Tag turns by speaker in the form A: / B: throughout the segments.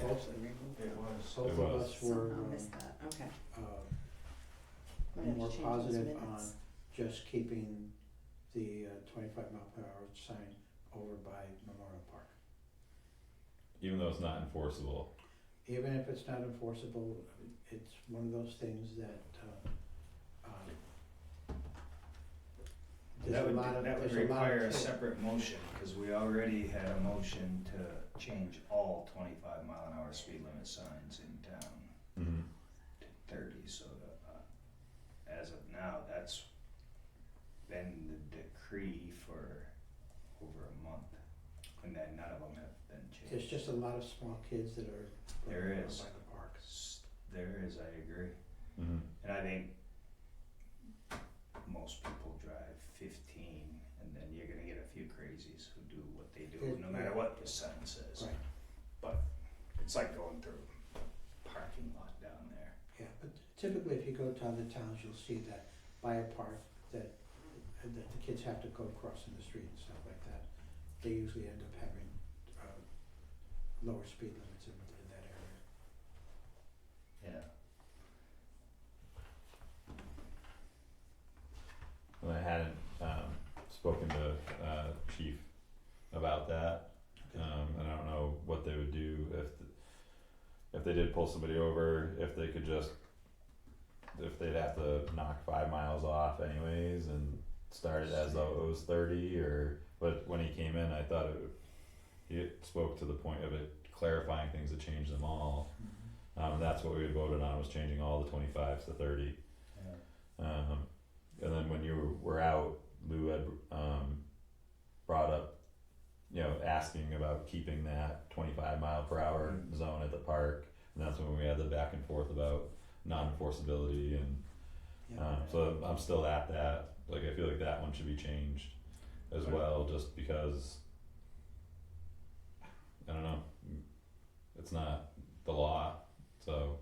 A: closely, meeting.
B: It was.
A: Both of us were
C: Somehow missed that, okay.
A: um, uh,
C: Might have to
A: more
C: change those
A: positive
C: minutes.
A: on- just keeping the uh, twenty-five mile per hour sign over by Memorial Park.
D: even though it's not enforceable.
A: Even if it's not enforceable, it's one of those things that, uh, um,
B: That
A: there's a
B: would,
A: lot of,
B: that would
A: there's a lot
B: require a
A: of, ta-
B: separate motion, cause we already had a motion to change all twenty-five mile an hour speed limit signs in town
D: Mm-hmm.
B: to thirty, so that, uh, as of now, that's been the decree for over a month, and then none of them have been changed.
A: there's just a lot of small kids that are.
B: There
A: running around
B: is.
A: By the park.
B: S- There is, I agree.
D: Mm-hmm.
B: And I think most people drive fifteen, and then you're gonna get a few crazies who do what they do, no matter what the sign says.
A: Right.
B: But it's like going through a parking lot down there.
A: Yeah, but typically if you go to other towns, you'll see that by a park that, that the kids have to go crossing the street and stuff like that. They usually end up having, uh, lower speed limits in, in that area.
B: Yeah.
D: And I hadn't um, spoken to uh, chief about that, um, and I don't know what they would do if th- if they did pull somebody over, if they could just if they'd have to knock five miles off anyways and start it as though it was thirty or but when he came in I thought it would- he spoke to the point of it clarifying things that changed them all.
B: Mm-hmm.
D: Um, that's what we had voted on was changing all the twenty fives to thirty.
B: Yeah.
D: Um, and then when you were out, Lou had um, brought up, you know, asking about keeping that 25 mile per hour
B: Mm.
D: zone at the park. And that's when we had the back and forth about non enforceability. And
A: Yeah.
D: um, so I'm still at that. Like, I feel like that one should be changed as
B: Right.
D: well, just because I don't know, it's not the law. So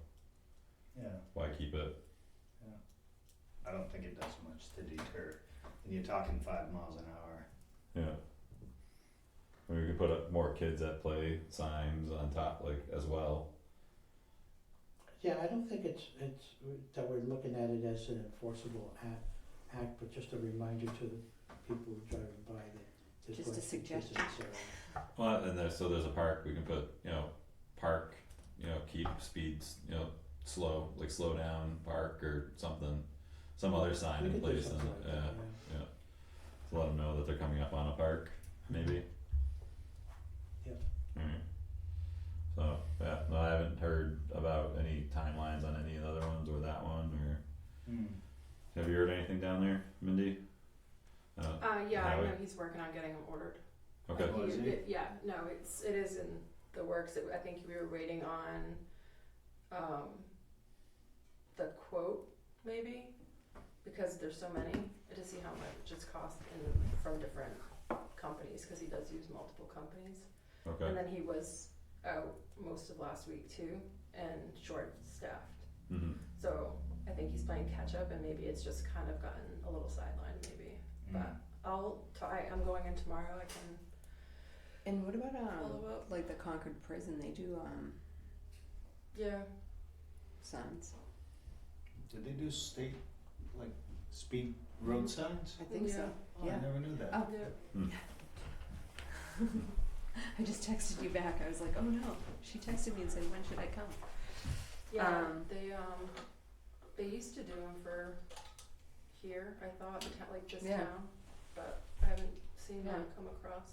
B: Yeah.
D: why keep it?
B: I don't think it does much to deter. And you're talking five miles an hour.
D: Yeah. We could put up more kids at play signs on top, like as well.
A: Yeah, I don't think it's, it's, that we're looking at it as an enforceable act, act, but just a reminder to the people driving by that. there's
C: Just a
A: going to be kids in
C: suggestion.
A: this area.
D: Well, and there's so there's a park we can put, you know, park, you know, keep speeds, you know, slow, like slow down park or something, some other sign
A: We
D: in
A: could do
D: place, and,
A: something like that,
D: yeah, to let them know that they're coming up on a park, maybe.
A: Yep.
D: Alright. So yeah, no, I haven't heard about any timelines on any of the other ones or that one or.
B: Mm.
D: Have you heard anything down there, Mindy? Uh,
E: Uh, yeah, I
D: Highway?
E: know he's working on getting them ordered.
D: okay.
B: Oh, is he?
E: it- yeah, no, it's, it is in the works. It- I think we were waiting on, um, the quote, maybe? Because there's so many, to see how much it's cost in, from different companies, cause he does use multiple companies.
D: Okay.
E: And then he was out most of last week too, and short-staffed.
D: Mm-hmm.
E: So I think he's playing catch-up and maybe it's just kind of gotten a little sidelined maybe.
B: Mm.
E: But- I'll try. I'm going in tomorrow. I can
C: And what about, um,
E: follow up.
C: like the Concord prison, they do, um,
E: Yeah.
C: signs.
B: Did they do state, like, speed road signs?
C: I think so.
B: Oh, I
C: Yeah.
B: never knew that.
C: Oh.
E: Yeah.
C: I just texted you back. I was like, oh no. She texted me and said, when should I come?
E: Yeah.
C: Um,
E: they um, they used to do them for here. I thought the town- like this
C: Yeah.
E: town, but I haven't seen them
C: Yeah.
E: come across.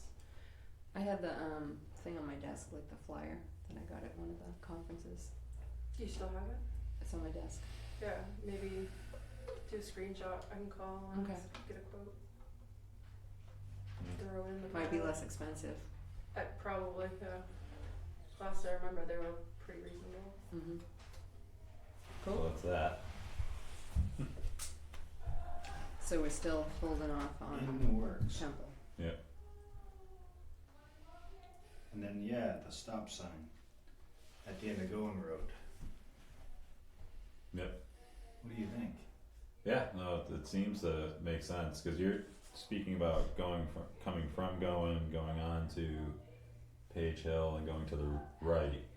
C: I had the, um, thing on my desk, like the flyer that I got at one of the conferences.
E: Do you still have it?
C: It's on my desk.
E: Yeah. Maybe do a screenshot. I can call and
C: Okay.
E: get a quote.
D: Mm.
E: Throw in the
C: Might be
E: pile.
C: less expensive.
E: Uh, probably. Yeah. Last I remember, they were pretty reasonable.
C: Mm-hmm.
D: Well, that's that.
C: So we're still holding off on
B: In the works.
C: Temple.
B: And then, yeah, the stop sign at the end of Going Road.
D: Yep.
B: What do you think?
D: Yeah, no, it, it seems to make sense because you're speaking about going from coming from going, going on to Page Hill, and going to the right.